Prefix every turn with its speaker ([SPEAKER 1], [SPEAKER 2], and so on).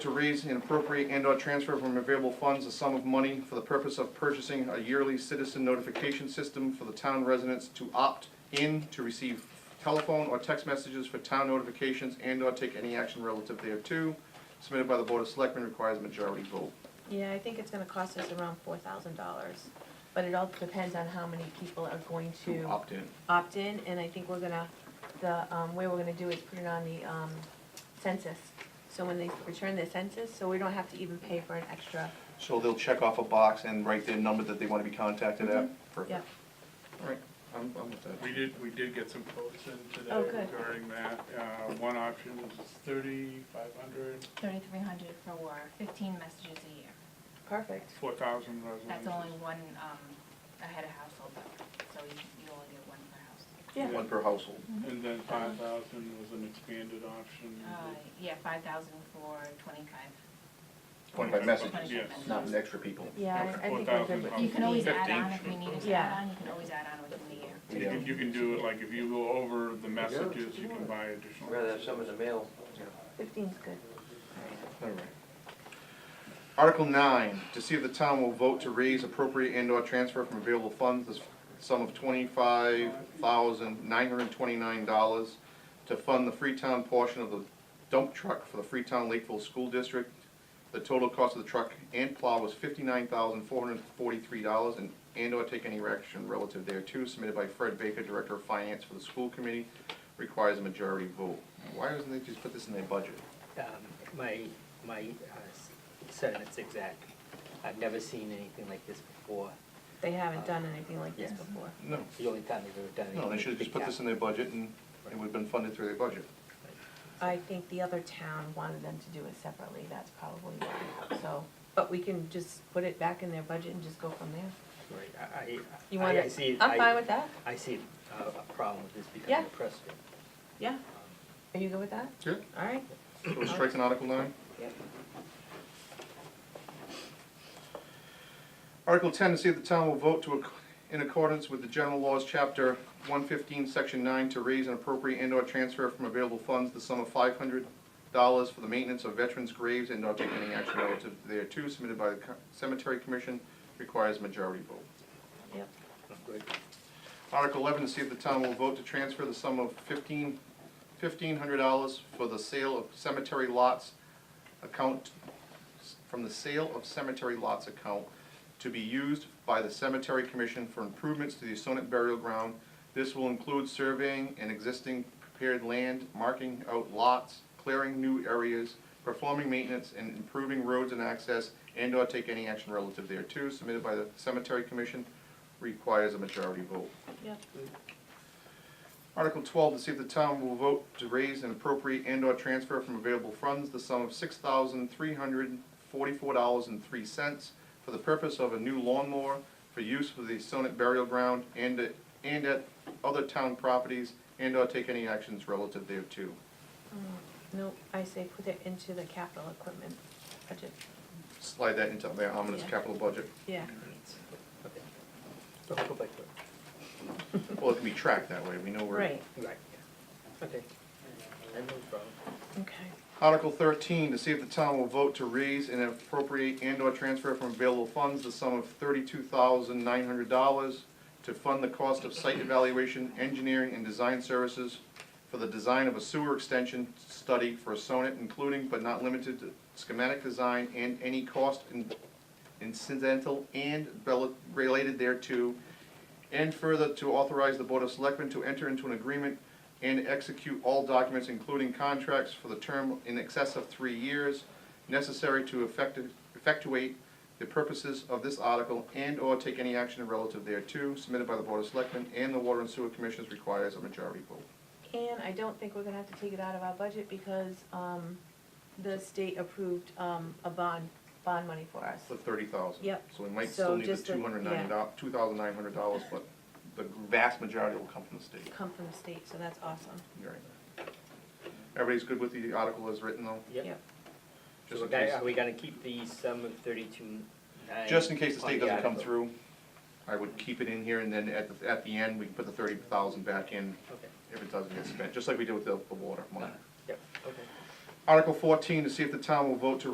[SPEAKER 1] to raise and appropriate and/or transfer from available funds a sum of money for the purpose of purchasing a yearly citizen notification system for the town residents to opt in to receive telephone or text messages for town notifications and/or take any action relative thereto, submitted by the Board of Selectmen requires a majority vote.
[SPEAKER 2] Yeah, I think it's gonna cost us around four thousand dollars, but it all depends on how many people are going
[SPEAKER 1] To
[SPEAKER 2] to
[SPEAKER 1] opt in.
[SPEAKER 2] opt in, and I think we're gonna, the, um, way we're gonna do is put it on the, um, census. So when they return their census, so we don't have to even pay for an extra,
[SPEAKER 1] So they'll check off a box and write their number that they want to be contacted at?
[SPEAKER 2] Mm-hmm. yeah.
[SPEAKER 1] Perfect. All right, I'm, I'm with that.
[SPEAKER 3] We did, we did get some quotes in today
[SPEAKER 2] Oh, good.
[SPEAKER 3] regarding that. Uh, One option was thirty-five hundred,
[SPEAKER 4] Thirty-three hundred for fifteen messages a year.
[SPEAKER 2] Perfect.
[SPEAKER 3] four thousand residents.
[SPEAKER 4] That's only one, um, a head of household though, so you, you only get one per house.
[SPEAKER 2] Yeah.
[SPEAKER 1] One per household.
[SPEAKER 3] And then
[SPEAKER 4] Uh-huh.
[SPEAKER 3] five thousand was an expanded option.
[SPEAKER 4] Uh, yeah, five thousand for twenty-five.
[SPEAKER 1] Twenty-five messages,
[SPEAKER 3] Yes.
[SPEAKER 1] not with extra people.
[SPEAKER 2] Yeah, I I think we're good with
[SPEAKER 3] $4,000.
[SPEAKER 4] You can always add
[SPEAKER 3] 15
[SPEAKER 4] on if we need to
[SPEAKER 2] Yeah.
[SPEAKER 4] add on, you can always add on within the year.
[SPEAKER 3] You can- You can do it, like, if you go over the messages, you can buy additional.
[SPEAKER 5] I'd rather have some in the mail.
[SPEAKER 2] Fifteen's good.
[SPEAKER 1] All right. Article nine, to see if the town will vote to raise appropriate and/or transfer from available funds the sum of twenty-five thousand nine hundred and twenty-nine dollars to fund the Freetown portion of the dump truck for the Freetown Lakeville School District. The total cost of the truck and plow was fifty-nine thousand four hundred and forty-three dollars and and/or take any action relative thereto submitted by Fred Baker, Director of Finance for the School Committee, requires a majority vote. Why doesn't they just put this in their budget?
[SPEAKER 6] Um, My, my uh, s- sentiment's exact. I've never seen anything like this before.
[SPEAKER 2] They haven't done anything like this
[SPEAKER 6] Yes.
[SPEAKER 2] before.
[SPEAKER 1] No.
[SPEAKER 6] It's The only time they've ever done anything.
[SPEAKER 1] No, they should have just put this in their budget and it would have been funded through their budget.
[SPEAKER 2] I think the other town wanted them to do it separately, that's probably why, so, but we can just put it back in their budget and just go from there.
[SPEAKER 6] Right, I,
[SPEAKER 2] You
[SPEAKER 6] I,
[SPEAKER 2] want
[SPEAKER 6] I- I see,
[SPEAKER 2] it?
[SPEAKER 6] it-
[SPEAKER 2] I'm fine
[SPEAKER 6] I,
[SPEAKER 2] with that,
[SPEAKER 6] I see uh, a problem with this
[SPEAKER 2] Yeah.
[SPEAKER 6] becoming a precedent.
[SPEAKER 2] yeah. Are you good with that?
[SPEAKER 1] Yeah.
[SPEAKER 2] All right.
[SPEAKER 1] So we're striking Article nine?
[SPEAKER 2] Yep.
[SPEAKER 1] Article ten, to see if the town will vote to, acc- in accordance with the general laws, chapter one fifteen, section nine, to raise an appropriate and/or transfer from available funds the sum of five hundred dollars for the maintenance of veterans' graves and not take any action relative thereto submitted by the co- cemetery commission requires majority vote.
[SPEAKER 2] Yep.
[SPEAKER 6] I'm Oh, good.
[SPEAKER 1] Article eleven, to see if the town will vote to transfer the sum of fifteen, fifteen hundred dollars for the sale of cemetery lots account, from the sale of cemetery lots account to be used by the cemetery commission for improvements to the Sonnet burial ground. This will include surveying and existing prepared land, marking out lots, clearing new areas, performing maintenance, and improving roads and access, and/or take any action relative thereto, submitted by the cemetery commission, requires a majority vote.
[SPEAKER 2] Yep.
[SPEAKER 1] Article twelve, to see if the town will vote to raise and appropriate and/or transfer from available funds the sum of six thousand three hundred forty-four dollars and three cents for the purpose of a new lawnmower for use for the Sonnet burial ground and at, and at other town properties and/or take any actions relative thereto.
[SPEAKER 2] No, I say put it into the capital equipment budget,
[SPEAKER 1] Slide that into the ominous
[SPEAKER 2] Yeah.
[SPEAKER 1] capital budget.
[SPEAKER 2] yeah.
[SPEAKER 6] Okay. Go go back to it.
[SPEAKER 1] Well, it can be tracked that way, we know where.
[SPEAKER 2] Right,
[SPEAKER 6] Right, yeah. Okay. I have no problem.
[SPEAKER 2] okay.
[SPEAKER 1] Article thirteen, to see if the town will vote to raise and appropriate and/or transfer from available funds the sum of thirty-two thousand nine hundred dollars to fund the cost of site evaluation, engineering, and design services for the design of a sewer extension study for a Sonnet, including but not limited to schematic design and any cost in- incidental and rel- related thereto, and further to authorize the Board of Selectmen to enter into an agreement and execute all documents, including contracts for the term in excess of three years, necessary to effecti- effectuate the purposes of this article and/or take any action relative thereto, submitted by the Board of Selectmen and the Water and Sewer Commissions requires a majority vote.
[SPEAKER 2] And I don't think we're gonna have to take it out of our budget because, um, the state approved, um, a bond, bond money for us.
[SPEAKER 1] The thirty thousand.
[SPEAKER 2] Yep.
[SPEAKER 1] So we might
[SPEAKER 2] So
[SPEAKER 1] still need the
[SPEAKER 2] just the-
[SPEAKER 1] two hundred ninety
[SPEAKER 2] yeah.
[SPEAKER 1] dollars, two thousand nine hundred dollars, but the vast majority will come from the state.
[SPEAKER 2] Come from the state, so that's awesome.
[SPEAKER 1] Right. Everybody's good with the article as written though?
[SPEAKER 6] Yep. So
[SPEAKER 1] Just
[SPEAKER 6] we're
[SPEAKER 1] in
[SPEAKER 6] gonna-
[SPEAKER 1] case,
[SPEAKER 6] are we gonna keep the sum of thirty-two nine?
[SPEAKER 1] just in case the
[SPEAKER 6] on
[SPEAKER 1] state doesn't come
[SPEAKER 6] article?
[SPEAKER 1] through, I would keep it in here and then at, the- at the end, we can put the thirty thousand back in
[SPEAKER 6] Okay,
[SPEAKER 1] if it doesn't get spent, just like we did with the, the water money.
[SPEAKER 6] yep, okay.
[SPEAKER 1] Article fourteen, to see if the town will vote to